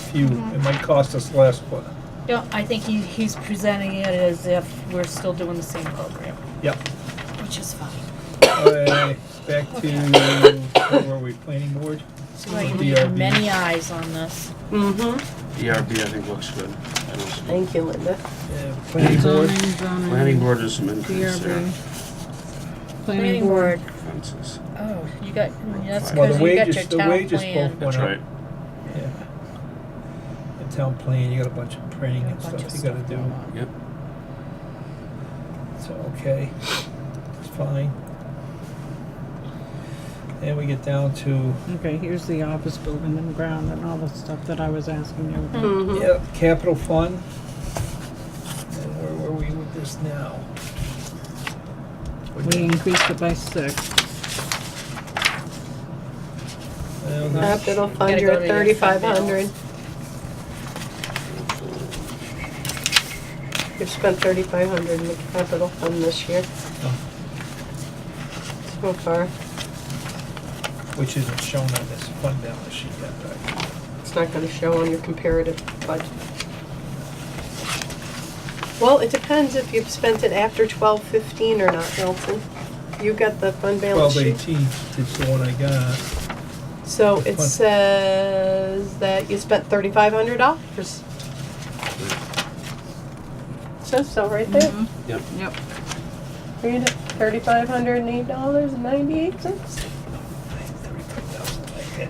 few, it might cost us less, but, No, I think he, he's presenting it as if we're still doing the same program, yep. which is fine. Uh, Back to, where were we, planning board? So I Mhm. need many eyes on this. Mm-hmm. ERB, I think, looks good. I don't see- Thank you, Linda. Uh, Planning board, Zoning, zoning, Planning board is some increase there. DRB. Planning board. Fences. Oh, you got, that's Well, the because you got your wages- the town wages plan. both- That's right. yeah. The town plan, you got a bunch of printing Got a and bunch stuff of you gotta do, going on. Yep. so, okay, it's fine. And we get down to, Okay, here's the office building and ground and all the stuff that I was asking you. about. Mm-hmm. yeah, capital fund. And where were we with this now? We increased it by six. Uh, this- Capital fund, Gotta you're go at to your fund thirty-five hundred. You've spent thirty-five hundred in the capital fund this year. Oh. So far, Which isn't shown on this fund balance sheet yet, right? it's not gonna show on your comparative budget. Well, it depends if you've spent it after twelve fifteen or not, Milton. You got the fund balance Twelve sheet. eighteen is the one I got. So it What? says that you spent thirty-five hundred dollars. Says so right there. Mhm. Yep. Yep. Read it. Thirty-five hundred and eight dollars and ninety-eight cents. Thirty-five thousand I had.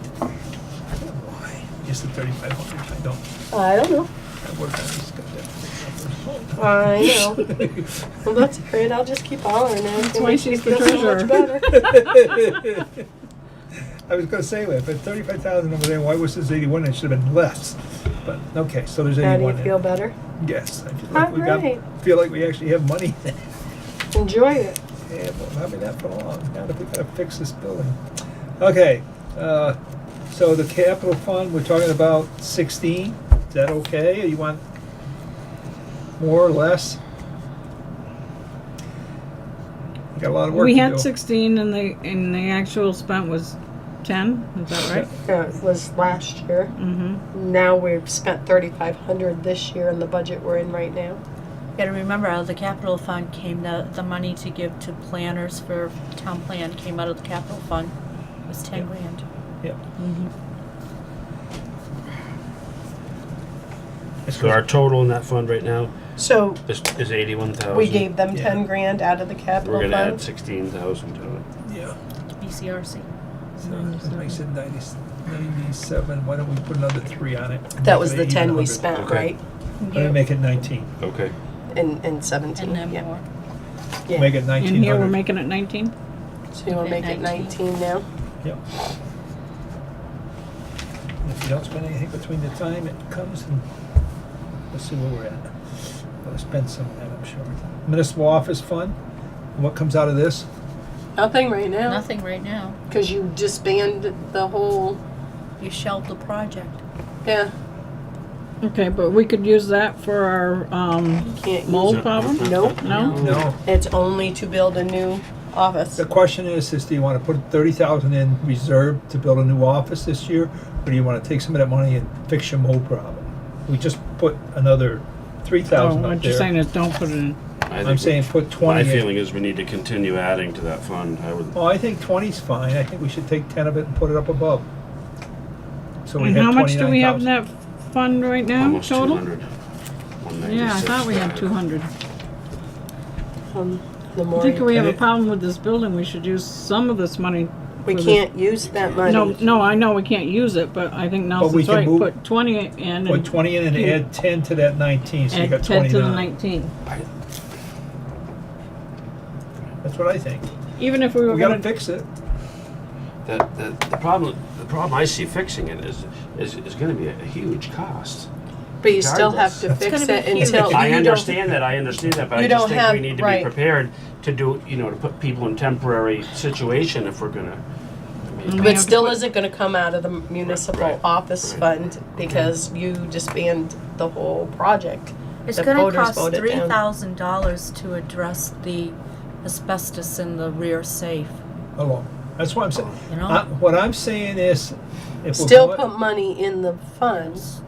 Why? Is the thirty-five hundred, I don't, I don't know. I work on these goddamn. I know. Well, that's great. I'll just keep hollering. That's why she's the treasurer. I was gonna say that, but thirty-five thousand over there, why was this eighty-one? It should have been less. But, okay, so there's How do eighty-one you in feel it. better? Yes, I feel like we Alright. got, feel like we actually have money. Enjoy it. Yeah, well, not been that for long, now that we gotta fix this building. Okay, uh, so the capital fund, we're talking about sixteen, is that okay, or you want more or less? We Got a lot of work to We do. had sixteen and the, and the actual spent was ten, is that right? Yeah, Uh, it was last year. Mm-hmm. Now we've spent thirty-five hundred this year in the budget we're in right now. Gotta remember, out of the capital fund came the, the money to give to planners for town plan came out of the capital fund. It was ten grand. This So was- our total in that fund right now So is, is eighty-one thousand. we gave them Yeah. ten grand out of the We're capital gonna add fund. sixteen thousand to it. Yeah, BCRC. so that makes it ninety- ninety-seven, why don't we put another three on it? That was the Make it ten 100. we spent, Okay. right? Why don't we make it nineteen, Okay. And, and seventeen, And then yeah. more. Yeah. make it nineteen hundred. And here we're making it nineteen? So you wanna Make make it it 19. nineteen now? Yep. And If you don't spend anything between the time it comes and let's see where we're at. We'll spend some of that, I'm sure. Municipal office fund, what comes out of this? Nothing right now, Nothing right now. cause you disbanded the whole, You shelved the project. yeah, Okay, but we could use that for our, um, can't use mold problem? Nope. No? No, It's only to build a new office. the question is, is do you wanna put thirty thousand in reserve to build a new office this year? Or do you wanna take some of that money and fix your mold problem? We just put another three Oh, thousand up what you're saying there. is don't put it in. I'm saying put My twenty in. feeling is we need to continue adding to that fund. I would, Well, Oh, I think twenty's fine. I think we should take ten of it and put it up above. So we And have how much do we have in 29,000. that fund right now, almost two total? hundred. uh, Yeah, I thought we had two hundred. Um, The I more, think you- we have a Okay. problem with this building, we should use some of this money. we for this- can't use that No, money. no, I know we can't use it, but I think we Nelson's can right, move- put twenty in Put and twenty in and add ten to that nineteen, so you add got ten to the twenty-nine. nineteen. That's what I think. Even if we were We gotta gonna, fix it. The, the, the problem, the problem I see fixing it is, is, is gonna be a huge cost. But you still have to It's fix gonna it be huge. until. I you don't- understand that, I understand that, but You I just don't think have- we need to right. be prepared to do, you know, to put people in temporary situation if we're gonna. I mean, But still isn't gonna come out of the municipal right, office right. fund because you disband the whole project. It's The gonna voters cost voted three down. thousand dollars to address the asbestos in the rear safe, Hello. That's what I'm saying. you know? I- What I'm saying is, if we're Still going- put money in the funds